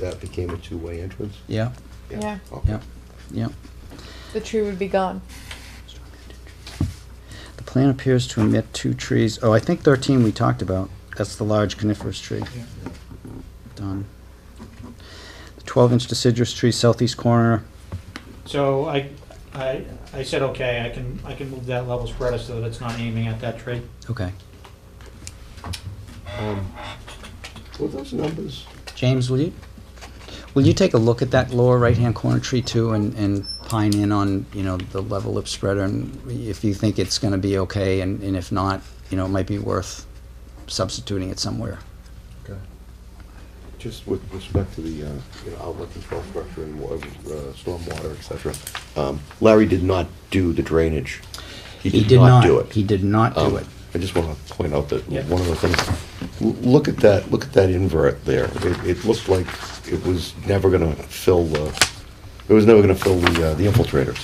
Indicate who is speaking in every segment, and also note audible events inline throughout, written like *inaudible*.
Speaker 1: that became a two-way entrance?
Speaker 2: Yeah,
Speaker 3: Yeah.
Speaker 1: Okay.
Speaker 2: yeah, yeah.
Speaker 3: The tree would be gone.
Speaker 2: The plan appears to omit two trees. Oh, I think thirteen we talked about. That's the large coniferous tree. Done. The twelve-inch deciduous tree southeast corner.
Speaker 4: So I, I, I said, okay, I can, I can move that level spreader so that it's not aiming at that tree.
Speaker 2: Okay.
Speaker 1: Um, Were those numbers,
Speaker 2: James, will you, will you take a look at that lower right-hand corner tree too and, and pine in on, you know, the level of spreader and if you think it's gonna be okay and, and if not, you know, it might be worth substituting it somewhere.
Speaker 1: just with respect to the, uh, you know, outlet control structure and wa- uh, stormwater, et cetera, um, Larry did not do the drainage.
Speaker 2: He did not,
Speaker 1: do it.
Speaker 2: he did not do Oh.
Speaker 1: Um,
Speaker 2: it.
Speaker 1: I just want to point out that
Speaker 4: Yeah.
Speaker 1: one of the things, l- look at that, look at that invert there. It, it looked like it was never going to fill the, it was never going to fill the, uh, the infiltrators.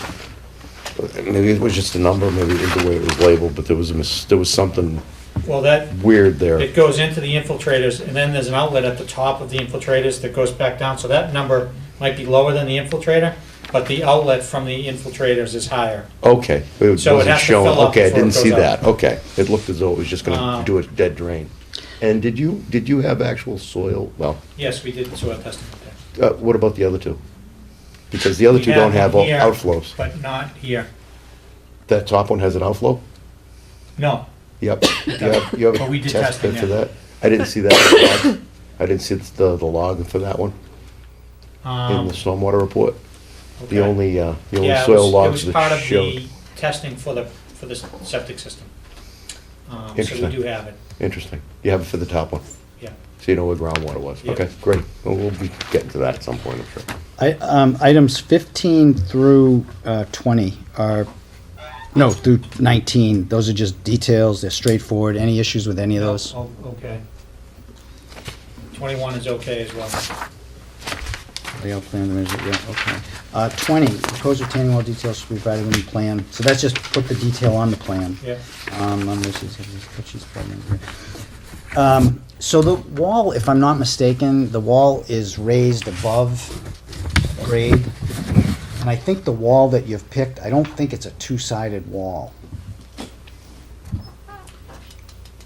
Speaker 1: Uh, Maybe it was just a number, maybe it was the way it was labeled, but there was a, mis- there was something
Speaker 4: Well, that,
Speaker 1: weird
Speaker 4: it
Speaker 1: there.
Speaker 4: goes into the infiltrators, and then there's an outlet at the top of the infiltrators that goes back down, so that number might be lower than the infiltrator, but the outlet from the infiltrators is higher.
Speaker 1: Okay, it
Speaker 4: So it
Speaker 1: wasn't
Speaker 4: has to
Speaker 1: shown,
Speaker 4: fill up
Speaker 1: okay, I
Speaker 4: before it
Speaker 1: didn't see
Speaker 4: goes
Speaker 1: that,
Speaker 4: out.
Speaker 1: okay. It looked as though it was just going
Speaker 4: Uh,
Speaker 1: to do a dead drain. And did you, did you have actual soil, well,
Speaker 4: Yes, we did soil testing there.
Speaker 1: uh, what about the other two? Because the other
Speaker 4: We
Speaker 1: two don't have
Speaker 4: them
Speaker 1: o-
Speaker 4: here,
Speaker 1: outflows.
Speaker 4: But not here.
Speaker 1: That top one has an outflow?
Speaker 4: No, *coughs*
Speaker 1: Yep. You have, you have
Speaker 4: But we
Speaker 1: a
Speaker 4: did
Speaker 1: test
Speaker 4: testing
Speaker 1: pit for
Speaker 4: there.
Speaker 1: that? I didn't see that. I didn't see the, the log for that one in
Speaker 4: um.
Speaker 1: the stormwater report. The
Speaker 4: okay.
Speaker 1: only, uh, the only
Speaker 4: Yeah, it
Speaker 1: soil
Speaker 4: was-
Speaker 1: logs
Speaker 4: It was part
Speaker 1: that
Speaker 4: of
Speaker 1: showed.
Speaker 4: the testing for the, for the septic system. Um, so we
Speaker 1: Interesting.
Speaker 4: do have it,
Speaker 1: Interesting. You have it for the top one,
Speaker 4: yeah.
Speaker 1: so you know where groundwater was.
Speaker 4: Yeah.
Speaker 1: Okay, great. Well, we'll be getting to that at some point, I'm sure.
Speaker 2: I, um, items fifteen through, uh, twenty are, no, through nineteen, those are just details, they're straightforward, any issues with any of those?
Speaker 4: Oh, Okay. Twenty-one is okay as well.
Speaker 2: Layout plan, there is, yeah, okay. Uh, twenty, proposed retaining wall details should be provided in the plan, so that's just put the detail on the plan.
Speaker 4: Yeah,
Speaker 2: Um, I'm just- just- just put these plugins here. Um, so the wall, if I'm not mistaken, the wall is raised above grade. And I think the wall that you've picked, I don't think it's a two-sided wall.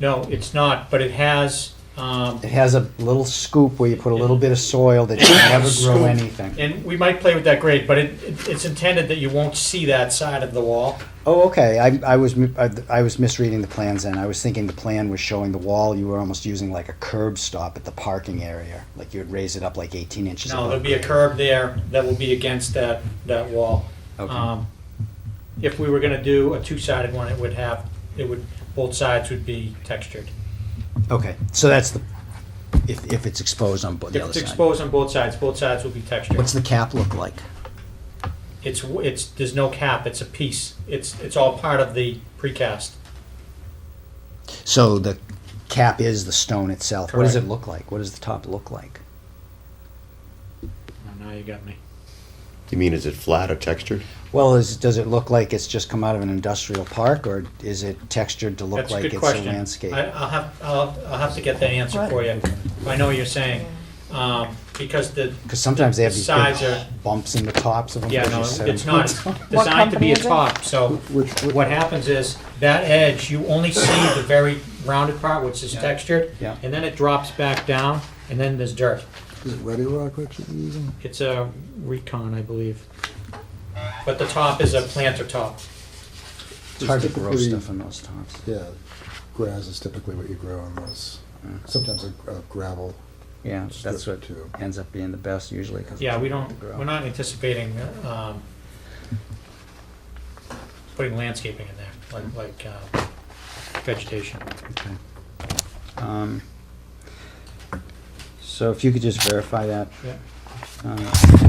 Speaker 4: no, it's not, but it has, um,
Speaker 2: It has a little scoop where you put a little bit of soil that you never grow
Speaker 4: Scoop.
Speaker 2: anything.
Speaker 4: and we might play with that grade, but it, it- it's intended that you won't see that side of the wall.
Speaker 2: Oh, okay, I, I was, mi- I I was misreading the plans then. I was thinking the plan was showing the wall, you were almost using like a curb stop at the parking area. Like you would raise it up like eighteen inches
Speaker 4: No,
Speaker 2: above
Speaker 4: there'll be a
Speaker 2: grade.
Speaker 4: curb there that will be against that, that wall.
Speaker 2: Okay.
Speaker 4: Um, If we were gonna do a two-sided one, it would have, it would, both sides would be textured.
Speaker 2: Okay, so that's the, if, if it's exposed on bo- the
Speaker 4: If
Speaker 2: other
Speaker 4: it's
Speaker 2: side.
Speaker 4: exposed on both sides, both sides will be textured.
Speaker 2: What's the cap look like?
Speaker 4: It's, it's, there's no cap, it's a piece. It's, it's all part of the precast.
Speaker 2: So the cap is the stone itself. What does it
Speaker 4: Correct.
Speaker 2: look like? What does the top look like?
Speaker 4: Oh, Now you got me.
Speaker 1: You mean, is it flat or textured?
Speaker 2: Well, is, does it look like it's just come out of an industrial park, or is it textured to look
Speaker 4: That's a
Speaker 2: like
Speaker 4: good
Speaker 2: it's a
Speaker 4: question.
Speaker 2: landscape?
Speaker 4: I, I'll have, I'll, I'll have to get that answer for you. I know what you're saying, um, because the,
Speaker 2: Because sometimes they have these
Speaker 4: Size
Speaker 2: big
Speaker 4: are-
Speaker 2: bumps in the tops of them.
Speaker 4: yeah,
Speaker 2: as
Speaker 4: no,
Speaker 2: you said. *laughs*
Speaker 4: it's not It's
Speaker 3: What
Speaker 4: designed to
Speaker 3: company
Speaker 4: be a
Speaker 3: is it?
Speaker 4: top, so what happens is, that edge, you only see the very rounded part, which is textured,
Speaker 2: Yeah.
Speaker 4: and then it drops back down, and then there's dirt.
Speaker 5: Is it Ready Rock what you're using?
Speaker 4: It's a recon, I believe. But the top is a planter top.
Speaker 2: It's hard to grow
Speaker 5: Typically-
Speaker 2: stuff on those tops.
Speaker 5: Yeah, grass is typically what you grow on those, sometimes a a gravel.
Speaker 2: Yeah, that's what
Speaker 5: Strip too.
Speaker 2: ends up being the best usually. 'cause
Speaker 4: Yeah, we
Speaker 2: it's
Speaker 4: don't,
Speaker 2: hard to grow.
Speaker 4: we're not anticipating, um, putting landscaping in there, like, like, uh, vegetation.
Speaker 2: Okay. Um, So if you could just verify that.
Speaker 4: Yeah.
Speaker 2: uh,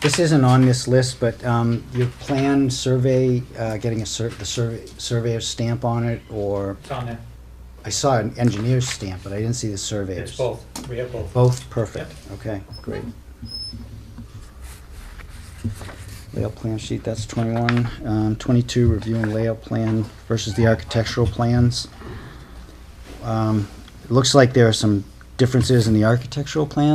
Speaker 2: This isn't on this list, but um, your planned survey, uh, getting a sur- the survey, surveyor stamp on it, or,
Speaker 4: It's on there.
Speaker 2: I saw an engineer's stamp, but I didn't see the surveyor's.
Speaker 4: It's both. We have both.
Speaker 2: Both, perfect, okay, great. Layout plan sheet, that's twenty-one, um, twenty-two, reviewing layout plan versus the architectural plans. Um, it looks like there are some differences in the architectural plan